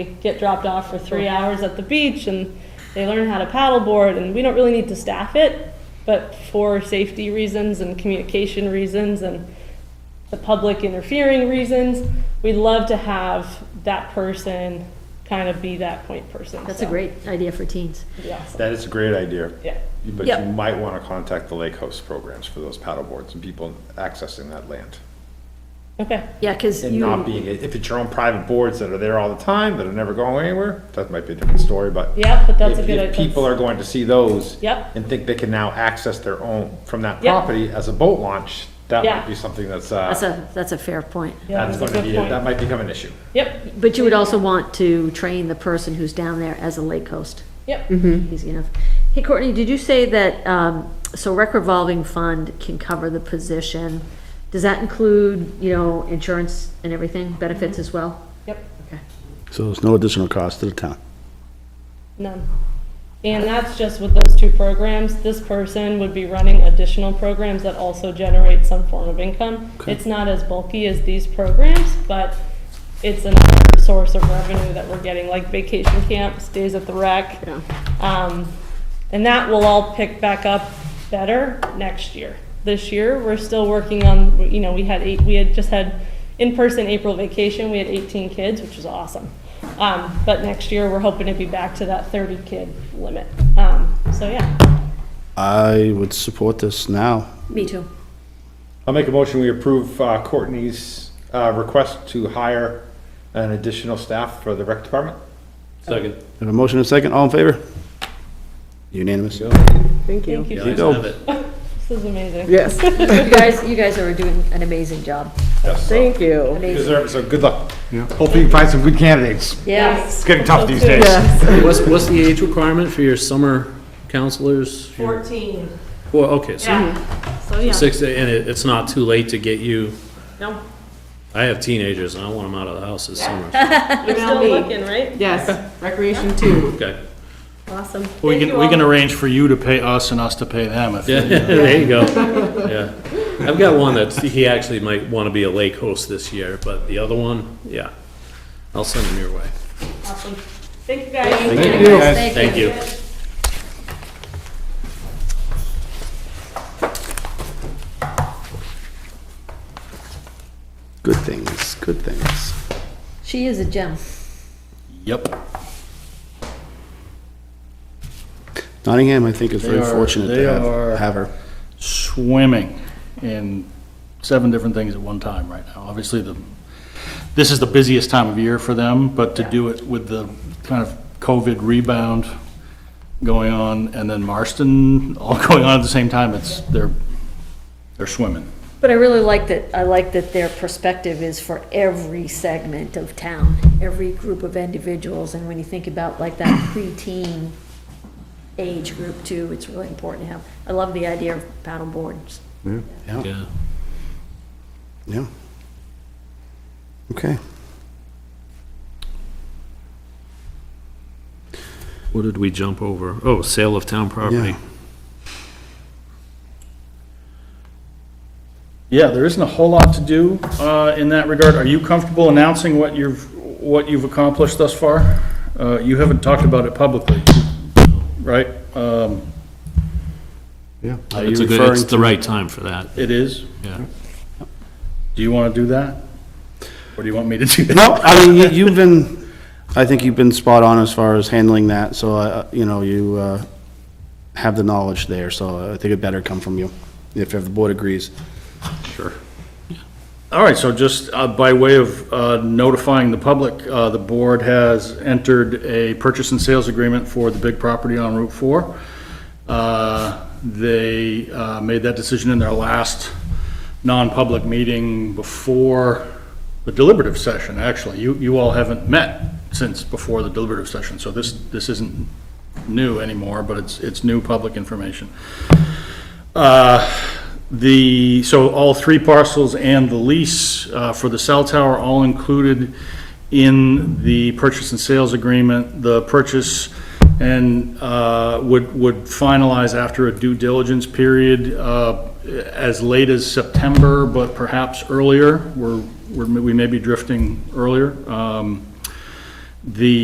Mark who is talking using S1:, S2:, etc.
S1: get dropped off for three hours at the beach and they learn how to paddleboard and we don't really need to staff it but for safety reasons and communication reasons and the public interfering reasons we'd love to have that person kind of be that point person
S2: That's
S1: So,
S2: a great idea for teens.
S1: it'd be awesome.
S3: That is a great idea.
S1: yeah
S3: But
S2: Yep.
S3: you might want to contact the lake host programs for those paddle boards and people accessing that land.
S1: okay
S2: Yeah, because
S3: And not
S2: you,
S3: being, if it's your own private boards that are there all the time, that are never going anywhere, that might be a different story, but.
S1: Yeah, but that's a
S3: if-
S1: good-
S3: If people are going to see those.
S1: Yep.
S3: And think they can now access their own from that
S1: Yep.
S3: property as a boat launch, that
S1: Yeah.
S3: might be something that's,
S2: that's
S3: uh,
S2: a, that's a fair point.
S1: Yeah,
S3: that's
S1: that's a
S3: going to
S1: good
S3: be,
S1: point.
S3: that might become an issue.
S1: yep
S2: But you would also want to train the person who's down there as a lake host.
S1: yep
S2: Easy enough. Hey, Courtney, did you say that, um, so rec revolving fund can cover the position? Does that include, you know, insurance and everything, benefits as well?
S1: yep
S2: Okay.
S4: So there's no additional cost to the town.
S1: None. And that's just with those two programs. This person would be running additional programs that also generate some form of income.
S4: Okay.
S1: It's not as bulky as these programs, but it's another source of revenue that we're getting, like vacation camps, days at the rec.
S2: Yeah.
S1: Um, And that will all pick back up better next year. This year, we're still working on, you know, we had eight, we had just had in-person April vacation, we had 18 kids, which was awesome. Um, But next year, we're hoping to be back to that 30-kid limit. Um, So, yeah.
S4: I would support this now.
S2: Me too.
S3: I'll make a motion, we approve uh, Courtney's uh, request to hire an additional staff for the rec department.
S5: Second.
S4: Have a motion and a second, all in favor? Unanimous.
S6: Thank
S1: Thank you.
S6: you.
S4: There you
S1: This
S4: go.
S5: Have it.
S1: is amazing.
S6: Yes,
S2: You guys, you guys are doing an amazing job.
S3: Yes, so-
S6: thank you.
S3: You deserve it, so good luck. Hopefully you find some good candidates.
S2: Yes.
S3: It's getting tough these days.
S6: Yes.
S5: What's, what's the age requirement for your summer counselors? Your-
S1: 14.
S5: Well, okay, so
S1: Yeah. So, yeah.
S5: six, and it, it's not too late to get you,
S1: No,
S5: I have teenagers and I want them out of the house this summer.
S1: You're still looking, right?
S6: Yes, recreation too.
S5: Okay.
S1: Awesome.
S7: We
S1: Thank
S7: can,
S1: you
S7: we can
S1: all.
S7: arrange for you to pay us and us to pay them if.
S5: Yeah, there you go. Yeah. I've got one that he actually might want to be a lake host this year, but the other one, yeah. I'll send him your way.
S1: Awesome. Thank you, guys.
S3: Thank you, guys.
S5: Thank you.
S4: Good things, good things.
S2: She is a gem.
S7: Yep.
S4: Nottingham, I think, is very
S7: They are-
S4: fortunate
S7: they
S4: to
S7: are-
S4: have, have her.
S7: Swimming in seven different things at one time right now. Obviously, the, this is the busiest time of year for them, but to do it with the kind of COVID rebound going on and then Marston all going on at the same time, it's, they're, they're swimming.
S2: But I really like that, I like that their perspective is for every segment of town, every group of individuals, and when you think about like that preteen age group too, it's really important to have. I love the idea of paddle boards.
S5: Yeah.
S4: Yeah. Okay.
S5: What did we jump over? Oh, sale of town property.
S4: Yeah.
S7: Yeah, there isn't a whole lot to do uh, in that regard. Are you comfortable announcing what you've, what you've accomplished thus far? Uh, You haven't talked about it publicly, right? Um,
S4: Yeah.
S5: Uh, It's a good, it's the right time for that,
S7: It is?
S5: yeah.
S7: Do you want to do that? Or do you want me to do that?
S4: No, I mean, you- you've been, I think you've been spot on as far as handling that, so, uh, you know, you uh, have the knowledge there, so I think it better come from you, if if the board agrees.
S7: Sure. All right, so just uh, by way of uh, notifying the public, uh, the board has entered a purchase and sales agreement for the big property on Route 4. Uh, They uh, made that decision in their last non-public meeting before the deliberative session, actually. You, you all haven't met since before the deliberative session, so this, this isn't new anymore, but it's, it's new public information. Uh, The, so all three parcels and the lease uh, for the cell tower, all included in the purchase and sales agreement. The purchase and uh, would, would finalize after a due diligence period uh, as late as September, but perhaps earlier. We're, we're- we may be drifting earlier. Um, The